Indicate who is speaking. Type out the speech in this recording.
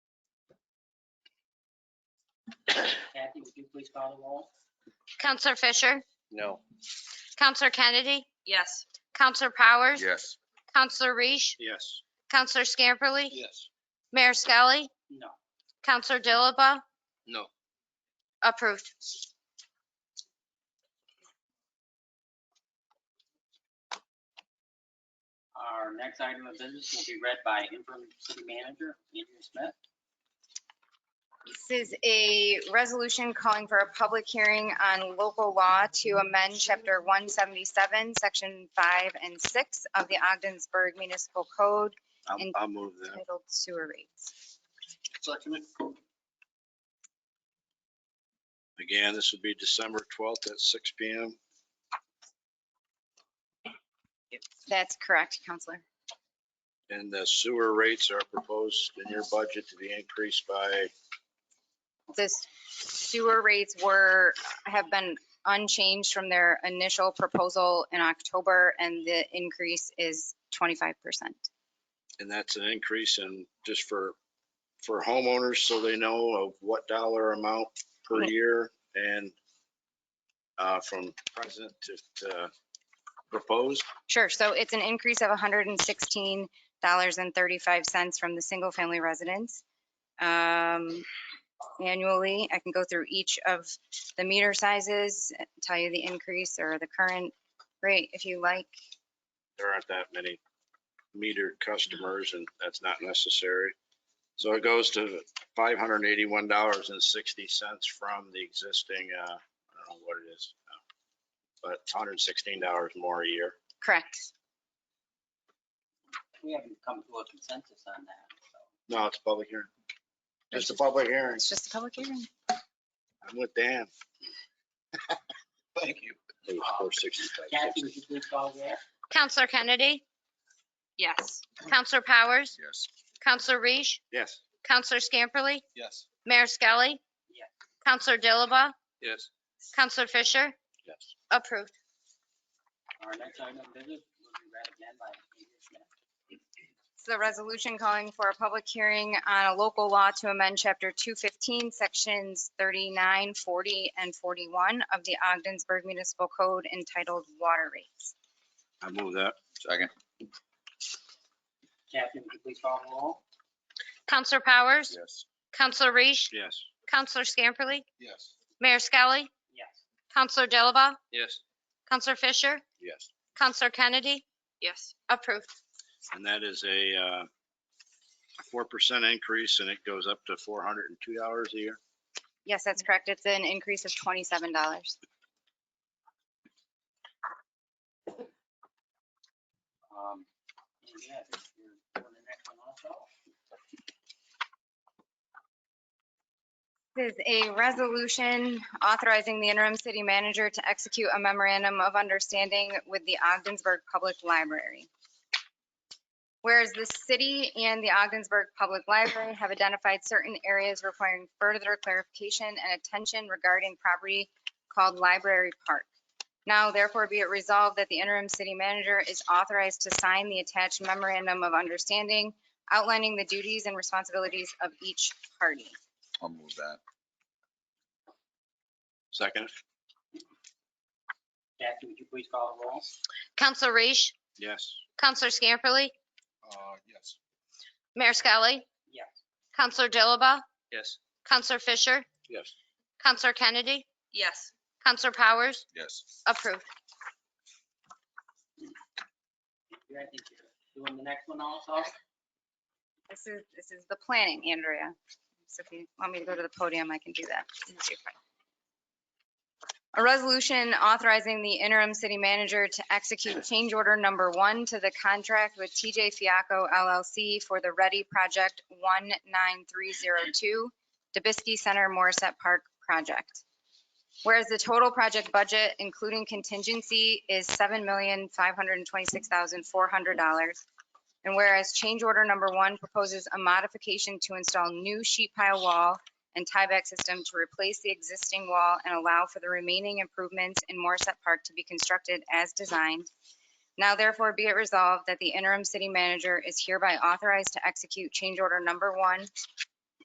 Speaker 1: Kathy, would you please call the roll?
Speaker 2: Counselor Fisher,
Speaker 3: No.
Speaker 2: Counselor Kennedy,
Speaker 4: Yes.
Speaker 2: Counselor Powers,
Speaker 3: Yes.
Speaker 2: Counselor Reese,
Speaker 3: Yes.
Speaker 2: Counselor Scamperly,
Speaker 3: Yes.
Speaker 2: Mayor Skelly,
Speaker 1: No.
Speaker 2: Counselor Dilaba,
Speaker 3: No.
Speaker 2: approved.
Speaker 1: Our next item of business will be read by interim city manager Andrew Smith.
Speaker 5: This is a resolution calling for a public hearing on local law to amend Chapter 177, Section 5 and 6 of the Ogdensburg Municipal Code
Speaker 3: I'll,
Speaker 5: And-
Speaker 3: I'll move that.
Speaker 5: titled Sewer Rates.
Speaker 3: Second Again, this would be December 12th at 6 PM.
Speaker 5: That's correct, Counselor.
Speaker 3: And the sewer rates are proposed in your budget to be increased by,
Speaker 5: The sewer rates were, have been unchanged from their initial proposal in October, and the increase is 25%.
Speaker 3: and that's an increase in just for, for homeowners so they know of what dollar amount per
Speaker 5: Right.
Speaker 3: year and uh, from present to- to proposed.
Speaker 5: Sure, so it's an increase of $116.35 from the single-family residence um, annually. I can go through each of the meter sizes, tell you the increase or the current rate if you like.
Speaker 3: there aren't that many metered customers and that's not necessary. So it goes to five hundred and eighty-one dollars and sixty cents from the existing, uh, I don't know what it is. uh, But it's hundred and sixteen dollars more a year.
Speaker 5: Correct.
Speaker 1: We haven't come to a consensus on that, so.
Speaker 3: No, it's a public hearing. Just a public hearing.
Speaker 5: It's just a public hearing.
Speaker 3: I'm with Dan. Thank you. It was four sixty-five.
Speaker 1: Kathy, would you please call the roll?
Speaker 2: Counselor Kennedy,
Speaker 4: Yes.
Speaker 2: Counselor Powers,
Speaker 3: Yes.
Speaker 2: Counselor Reese,
Speaker 3: Yes.
Speaker 2: Counselor Scamperly,
Speaker 3: Yes.
Speaker 2: Mayor Skelly,
Speaker 1: Yes.
Speaker 2: Counselor Dilaba,
Speaker 3: Yes.
Speaker 2: Counselor Fisher,
Speaker 3: Yes.
Speaker 2: approved.
Speaker 1: Our next item of business will be read again by Andrew Smith.
Speaker 5: It's the resolution calling for a public hearing on a local law to amend Chapter 215, Sections 39, 40, and 41 of the Ogdensburg Municipal Code entitled Water Rates.
Speaker 3: I move that. Second.
Speaker 1: Kathy, would you please call the roll?
Speaker 2: Counselor Powers,
Speaker 3: Yes.
Speaker 2: Counselor Reese,
Speaker 3: Yes.
Speaker 2: Counselor Scamperly,
Speaker 3: Yes.
Speaker 2: Mayor Skelly,
Speaker 1: Yes.
Speaker 2: Counselor Dilaba,
Speaker 3: Yes.
Speaker 2: Counselor Fisher,
Speaker 3: Yes.
Speaker 2: Counselor Kennedy,
Speaker 4: Yes.
Speaker 2: approved.
Speaker 3: And that is a uh, four percent increase and it goes up to four hundred and two dollars a year.
Speaker 5: Yes, that's correct. It's an increase of $27.
Speaker 1: Um, and yeah, I think you're doing the next one also.
Speaker 5: This is a resolution authorizing the interim city manager to execute a memorandum of understanding with the Ogdensburg Public Library. Whereas the city and the Ogdensburg Public Library have identified certain areas requiring further clarification and attention regarding property called Library Park. Now therefore be it resolved that the interim city manager is authorized to sign the attached memorandum of understanding outlining the duties and responsibilities of each party.
Speaker 6: I'll move that.
Speaker 3: Second?
Speaker 1: Kathy, would you please call the roll?
Speaker 2: Counselor Reese,
Speaker 3: Yes.
Speaker 2: Counselor Scamperly,
Speaker 6: Uh, yes.
Speaker 2: Mayor Skelly,
Speaker 1: Yes.
Speaker 2: Counselor Dilaba,
Speaker 3: Yes.
Speaker 2: Counselor Fisher,
Speaker 3: Yes.
Speaker 2: Counselor Kennedy,
Speaker 4: Yes.
Speaker 2: Counselor Powers,
Speaker 6: Yes.
Speaker 2: approved.
Speaker 1: Andrew, I think you're doing the next one also.
Speaker 5: This is, this is the planning, Andrea. So if you want me to go to the podium, I can do that. A resolution authorizing the interim city manager to execute change order number one to the contract with TJ Fiaco LLC for the Ready Project 19302 Dubisky Center Morissette Park project. Whereas the total project budget, including contingency, is $7,526,400. And whereas change order number one proposes a modification to install new sheet pile wall and tieback system to replace the existing wall and allow for the remaining improvements in Morissette Park to be constructed as designed. Now therefore be it resolved that the interim city manager is hereby authorized to execute change order number one